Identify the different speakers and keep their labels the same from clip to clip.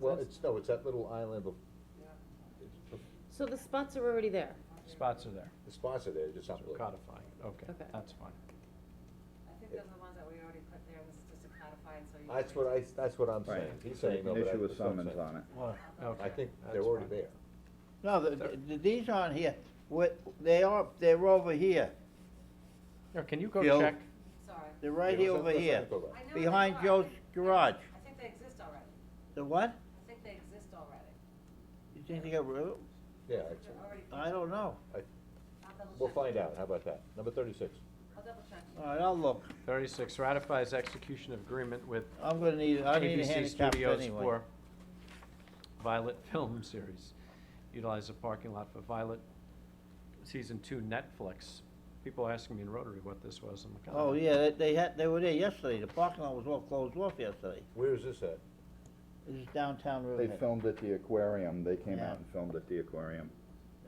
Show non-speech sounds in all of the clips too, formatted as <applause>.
Speaker 1: Well, it's, no, it's that little island, bef- it's bef-
Speaker 2: So the spots are already there?
Speaker 3: Spots are there,
Speaker 1: the spots are there, just
Speaker 3: so
Speaker 1: not really.
Speaker 3: codifying, okay,
Speaker 2: Okay.
Speaker 3: that's fine.
Speaker 4: I think those are the ones that we already put there, this is just a codified, so you. can
Speaker 1: That's what I, that's what I'm saying,
Speaker 5: Right.
Speaker 1: he's saying, no, but I.
Speaker 5: Issue a
Speaker 1: that's what I'm
Speaker 5: summons
Speaker 1: saying.
Speaker 5: on it.
Speaker 3: Well,
Speaker 1: I
Speaker 3: okay,
Speaker 1: think they're
Speaker 3: that's
Speaker 1: already
Speaker 3: fine.
Speaker 1: there.
Speaker 6: No, the, the, these aren't here, what, they are, they're over here,
Speaker 3: Yeah, can you go
Speaker 6: Bill.
Speaker 3: check?
Speaker 4: Sorry.
Speaker 6: they're right
Speaker 1: Yeah,
Speaker 6: here
Speaker 1: let's-
Speaker 6: over
Speaker 1: let's not
Speaker 6: here,
Speaker 1: go back.
Speaker 4: I know they
Speaker 6: behind
Speaker 4: are.
Speaker 6: Joe's garage,
Speaker 4: I think they exist already.
Speaker 6: the what?
Speaker 4: I think they exist already.
Speaker 6: You think they got, rid of-
Speaker 1: Yeah,
Speaker 4: They're
Speaker 1: it's-
Speaker 4: already-
Speaker 6: I don't know,
Speaker 4: I'll double
Speaker 1: Uh, we'll
Speaker 4: check.
Speaker 1: find out, how about that? Number thirty-six.
Speaker 4: I'll double check.
Speaker 6: all right, I'll look,
Speaker 3: Thirty-six ratifies execution of agreement with
Speaker 6: I'm gonna need, Oh, I need a
Speaker 3: ABC
Speaker 6: handicap anyway.
Speaker 3: Studios for Violet <laughs> Film Series. Utilize the parking lot for Violet Season Two Netflix. People asking me in Rotary what this was, I'm like. I
Speaker 6: Oh,
Speaker 3: don't-
Speaker 6: yeah, they- they had, they were there yesterday, the parking lot was all closed off yesterday,
Speaker 1: Where is this at?
Speaker 6: this is downtown
Speaker 5: They
Speaker 6: Riverhead.
Speaker 5: filmed at the aquarium, they came
Speaker 6: Yeah.
Speaker 5: out and filmed at the aquarium,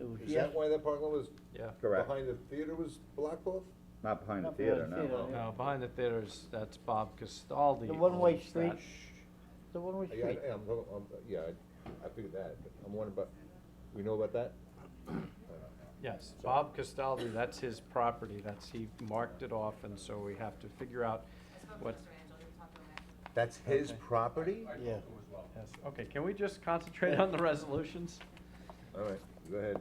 Speaker 6: It was
Speaker 1: Is
Speaker 6: yes,
Speaker 1: that why that parking lot was
Speaker 3: Yeah,
Speaker 5: correct,
Speaker 1: behind the theater was blocked off?
Speaker 5: not behind the
Speaker 6: Not behind
Speaker 5: theater,
Speaker 6: the
Speaker 5: no.
Speaker 6: theater,
Speaker 3: no, behind the theaters, that's Bob Castaldi.
Speaker 6: The one-way
Speaker 3: owns that.
Speaker 6: street. the one-way
Speaker 1: Yeah,
Speaker 6: street,
Speaker 1: I- I'm, talking- I'm- yeah, I- I figured that, but I'm wondering about, we know about that?
Speaker 3: Yes, Bob Castaldi, that's his property, that's, he marked it off, and so we have to figure out
Speaker 4: I spoke to
Speaker 3: what.
Speaker 4: Mr. Angel, he was talking to him.
Speaker 1: That's his property?
Speaker 6: yeah.
Speaker 3: Yes, okay, can we just
Speaker 1: <laughs>
Speaker 3: concentrate on the resolutions?
Speaker 1: All right, go ahead.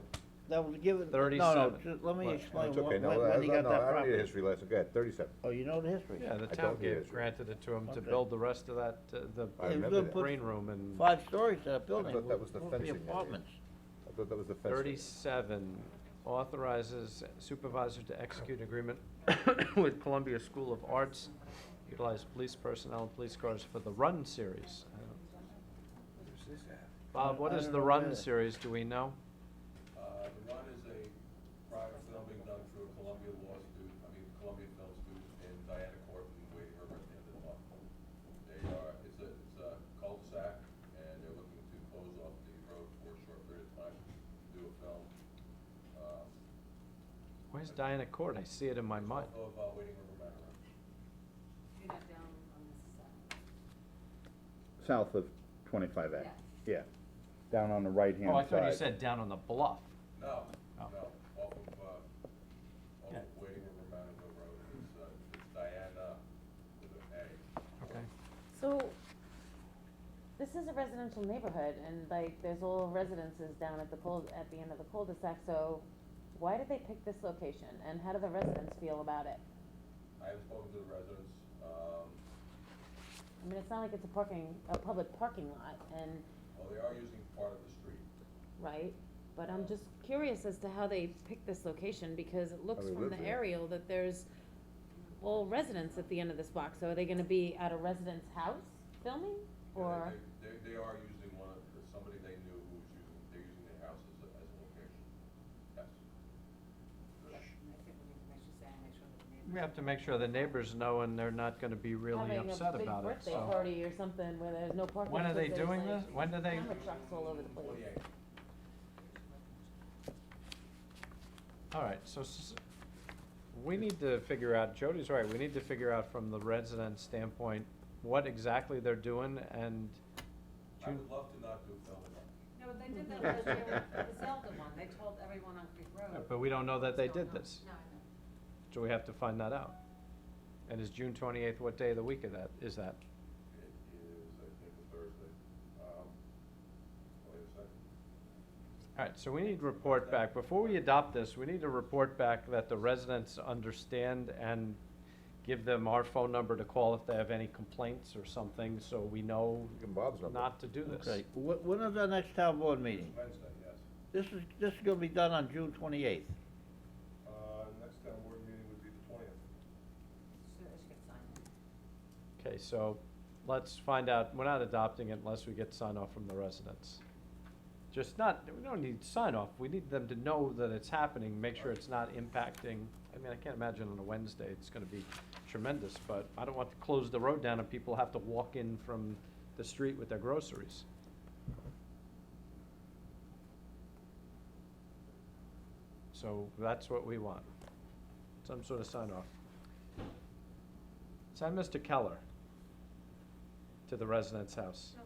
Speaker 6: That was given, no, no,
Speaker 3: 37.
Speaker 6: just let me
Speaker 3: What?
Speaker 6: explain
Speaker 1: It's
Speaker 6: wh-
Speaker 1: okay,
Speaker 6: when,
Speaker 1: no,
Speaker 6: when he
Speaker 1: I,
Speaker 6: got
Speaker 1: no,
Speaker 6: that
Speaker 1: I don't need a
Speaker 6: property.
Speaker 1: history lesson, go ahead, thirty-seven.
Speaker 6: Oh, you know the history?
Speaker 3: Yeah, the
Speaker 1: I
Speaker 3: town
Speaker 1: don't need
Speaker 3: gave,
Speaker 1: it.
Speaker 3: granted it to him to
Speaker 6: Okay.
Speaker 3: build the rest of that, uh,
Speaker 1: I
Speaker 3: the
Speaker 6: Yeah,
Speaker 1: remember
Speaker 6: good
Speaker 1: that,
Speaker 6: put-
Speaker 3: green room and
Speaker 6: Five stories to that
Speaker 1: I
Speaker 6: building,
Speaker 1: thought that
Speaker 6: would-
Speaker 1: was the
Speaker 6: would be
Speaker 1: fencing area.
Speaker 6: apartments.
Speaker 1: I thought that was the fence.
Speaker 3: Thirty-seven authorizes supervisor to execute agreement <coughs> with Columbia School of Arts, utilize police personnel and police cars for the Run series. I don't- Bob, what
Speaker 6: I
Speaker 3: is
Speaker 6: don't
Speaker 3: the
Speaker 6: know
Speaker 3: Run
Speaker 6: either.
Speaker 3: series, do we know?
Speaker 7: Uh, The Run is a private film being done through a Columbia Law student, I mean, Columbia Film student and Diana Corbin and Wade Herbert and the law. They are, it's a, it's a cul-de-sac and they're looking to close off the road for a short period of time, to do a film. um,
Speaker 3: Where's Diana Court? I see it in my mind.
Speaker 7: Of uh, Waiting River Manor.
Speaker 4: You're not down on this side.
Speaker 5: South of twenty-five A,
Speaker 4: Yeah.
Speaker 5: yeah, down on the right-hand side.
Speaker 3: Oh, I thought you said down on the bluff.
Speaker 7: No,
Speaker 3: Oh.
Speaker 7: no, off of, uh, off
Speaker 3: Yeah.
Speaker 7: of Waiting River Manor Road, it's, uh, it's Diana with an A.
Speaker 3: Okay.
Speaker 2: So, this is a residential neighborhood, and like, there's all residences down at the cul, at the end of the cul-de-sac, so why did they pick this location, and how do the residents feel about it?
Speaker 7: I have spoken to the residents, um,
Speaker 2: I mean, it's not like it's a parking, a public parking lot, and,
Speaker 7: Well, they are using part of the street.
Speaker 2: right? But I'm just curious as to how they picked this location, because it looks
Speaker 1: they
Speaker 2: from
Speaker 1: live
Speaker 2: the
Speaker 1: there.
Speaker 2: aerial that there's all residents at the end of this block, so are they gonna be at a resident's house filming,
Speaker 7: They-
Speaker 2: or?
Speaker 7: They, they, they are using one of, the- somebody they knew who was using, they're using their house as a, as a location. Yes.
Speaker 4: And I think we need to make sure, Sam, make sure that the neighbors.
Speaker 3: We have to make sure the neighbors know and they're not gonna be really upset about it,
Speaker 2: Having a big birthday
Speaker 3: so.
Speaker 2: party or something where there's no parking.
Speaker 3: When are they
Speaker 2: because there's,
Speaker 3: doing
Speaker 2: like,
Speaker 3: this? When do they,
Speaker 2: Camera trucks all over the place.
Speaker 7: Twenty-eight.
Speaker 3: all right, so s- we need to figure out, Jody's right, we need to figure out from the resident standpoint what exactly they're doing and
Speaker 7: I would love to not do film at all.
Speaker 4: No, but they did that last year with the Zelda one, they told everyone on Creek Road.
Speaker 3: But we don't know that they
Speaker 4: what's going
Speaker 3: did
Speaker 4: on.
Speaker 3: this,
Speaker 4: No, I know.
Speaker 3: so we have to find that out. And is June twenty-eighth, what day of the week of that, is that?
Speaker 7: It is, I think, a Thursday. Um, wait a second.
Speaker 3: All right, so we need to report back, before we adopt this, we need to report back that the residents understand and give them our phone number to call if they have any complaints or something, so we know
Speaker 1: Give him Bob's number.
Speaker 3: not to do this.
Speaker 6: Okay, wh- when is our next town board meeting?
Speaker 7: Wednesday, yes.
Speaker 6: This is, this is gonna be done on June twenty-eighth.
Speaker 7: Uh, next town board meeting would be the twentieth.
Speaker 4: Should, I should get signed.
Speaker 3: Okay, so let's find out, we're not adopting it unless we get sign off from the residents. Just not, we don't need sign off, we need them to know that it's happening, make sure it's not impacting. I mean, I can't imagine on a Wednesday, it's gonna be tremendous, but I don't want to close the road down and people have to walk in from the street with their groceries. So that's what we want, some sort of sign off. Send Mr. Keller to the resident's house.
Speaker 4: No,